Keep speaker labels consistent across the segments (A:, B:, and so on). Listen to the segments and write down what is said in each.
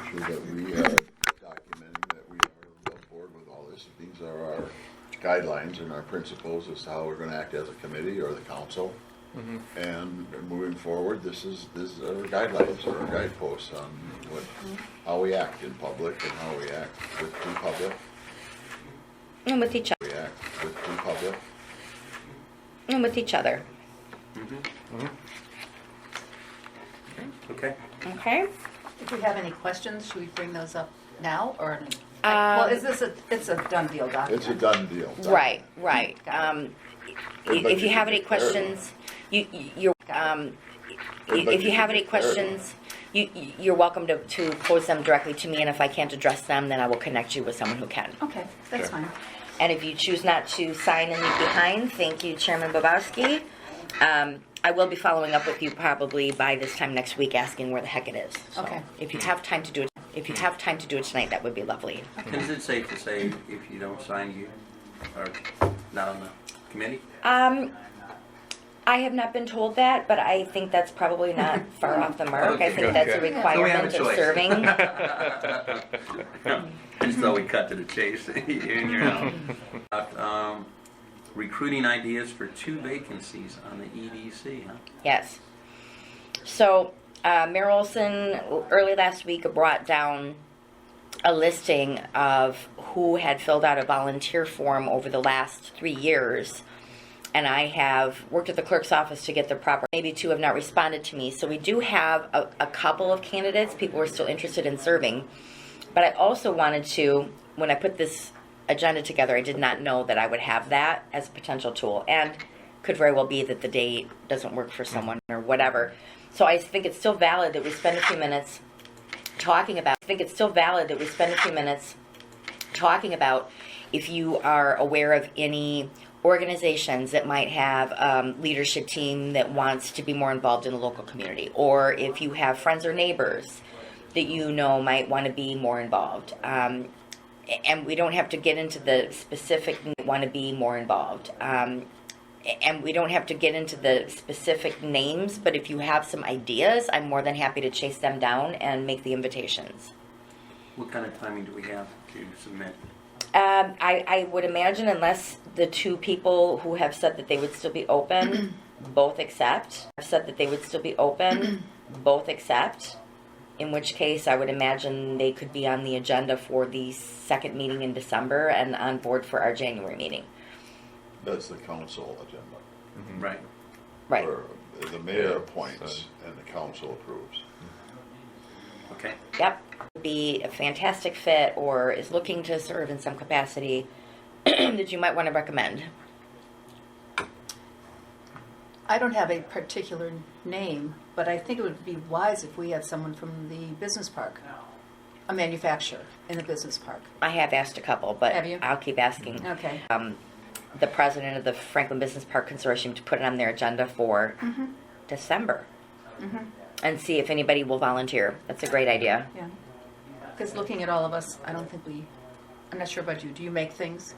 A: sure that we are documenting that we are on board with all this. These are our guidelines and our principles as to how we're gonna act as a committee or the council. And moving forward, this is, this is our guidelines or our guideposts on what, how we act in public and how we act with the public,
B: and with each
A: we act with the public.
B: and with each other.
C: Okay.
B: Okay.
D: If we have any questions, should we bring those up now or? like,
B: Um,
D: Well, is this a, it's a done deal document?
A: It's a done deal.
B: Right. Right. Um, i-
A: Everybody
B: if you
A: should
B: have
A: be
B: any
A: prepared.
B: questions, you you- you're um, i-
A: Everybody
B: if you
A: should
B: have
A: be
B: any
A: prepared.
B: questions, you you- you're welcome to to pose them directly to me, and if I can't address them, then I will connect you with someone who can.
D: Okay, that's
A: Okay.
D: fine.
B: And if you choose not to sign and leave behind, thank you, Chairman Babowski. Um, I will be following up with you probably by this time next week, asking where the heck it is. So
D: Okay.
B: If you have time to do it, if you have time to do it tonight, that would be lovely.
C: Is it safe to say if you don't sign, you are not on the committee?
B: Um, I have not been told that, but I think that's probably not far off the mark. I think that's a
C: Okay.
D: So
C: we have a
B: requirement of
C: choice.
B: serving.
C: Just thought we cut to the chase. You're in, you're out. About, um, recruiting ideas for two vacancies on the EDC, huh?
B: Yes. So, uh, Mayor Olson early last week brought down a listing of who had filled out a volunteer form over the last three years. And I have worked at the clerk's office to get the proper, maybe two have not responded to me. So we do have a, a couple of candidates, people are still interested in serving. But I also wanted to, when I put this agenda together, I did not know that I would have that as a potential tool. And could very well be that the date doesn't work for someone or whatever. So I think it's still valid that we spend a few minutes talking about, I think it's still valid that we spend a few minutes talking about if you are aware of any organizations that might have um, leadership team that wants to be more involved in the local community or if you have friends or neighbors that you know might want to be more involved um, a- and we don't have to get into the specific want to be more involved um, a- and we don't have to get into the specific names but if you have some ideas i'm more than happy to chase them down and make the invitations
C: What kind of timing do we have to submit?
B: Um, I, I would imagine unless the two people who have said that they would still be open, both accept, have said that they would still be open, both accept, in which case I would imagine they could be on the agenda for the second meeting in December and on board for our January meeting.
A: That's the council agenda.
C: Right.
B: Right.
A: Where The mayor appoints and the council approves.
C: Okay.
B: Yep. Be a fantastic fit or is looking to serve in some capacity that you might want to recommend.
D: I don't have a particular name, but I think it would be wise if we had someone from the business park, a manufacturer in the business park.
B: I have asked a couple, but
D: Have you?
B: I'll keep asking.
D: Okay.
B: um, the president of the Franklin Business Park Consortium to put it on their agenda for December and see if anybody will volunteer. That's a great idea.
D: Yeah. Because looking at all of us, I don't think we, I'm not sure about you. Do you make things?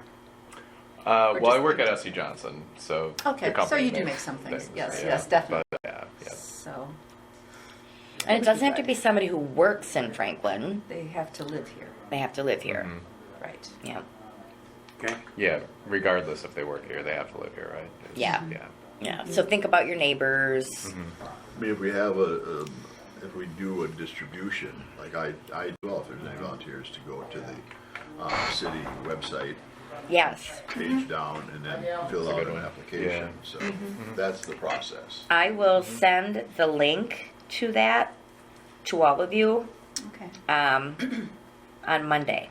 E: Uh,
D: Or
E: well, I
D: just
E: work at
D: things?
E: SC Johnson, so
D: Okay,
E: the company
D: so you do
E: makes
D: make some things. Yes,
E: yeah,
D: yes, definitely.
E: But, yeah, yeah.
D: So
B: And it doesn't have to
D: Right.
B: be somebody who works in Franklin,
D: they have to live here,
B: they have to live here.
D: right?
B: Yeah.
C: Okay.
E: Mm-hmm. yeah. Regardless if they work here, they have to live here, right? It's-
B: Yeah.
E: yeah.
B: Yeah. So think about your neighbors.
E: Mm-hmm.
A: I mean, if we have a, um, if we do a distribution, like I, I, well, if there's any volunteers to go to the, uh, city website
B: Yes.
A: page down and then fill out
E: good
A: an
E: one.
A: application,
E: Yeah. Mm-hmm.
A: so that's the process.
B: I will send the link to that to all of you
D: Okay.
B: um, on Monday.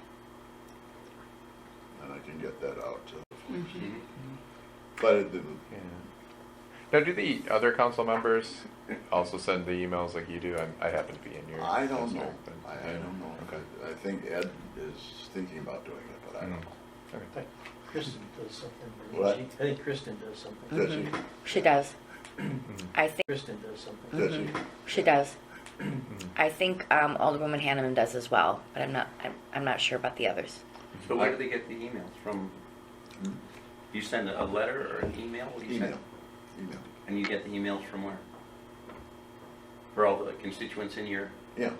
A: And I can get that out to the folks.
E: Mm-hmm.
A: But it didn't,
E: yeah. Now, do the other council members also send the emails like you do? I, I happen to be in your.
A: I don't know,
E: district, but-
A: I, I don't know.
E: Okay.
A: I think Ed is thinking about doing it, but I don't
E: Mm-hmm.
A: know.
E: Okay.
F: Kristen does something. doesn't
A: What?
F: she? I think Kristen does something.
A: Does he,
B: She does.
E: Mm-hmm.
B: I think.
F: Kristen does something.
A: does he?
B: She does.
E: Mm-hmm.
B: I think um, Alderwoman Hanneman does as well, but I'm not. I'm, I'm not sure about the others.
C: So where do they get the emails from? You send a letter or an email? What do you send?
A: Email, email,
C: And you get the emails from where? For all the constituents in your
A: yeah.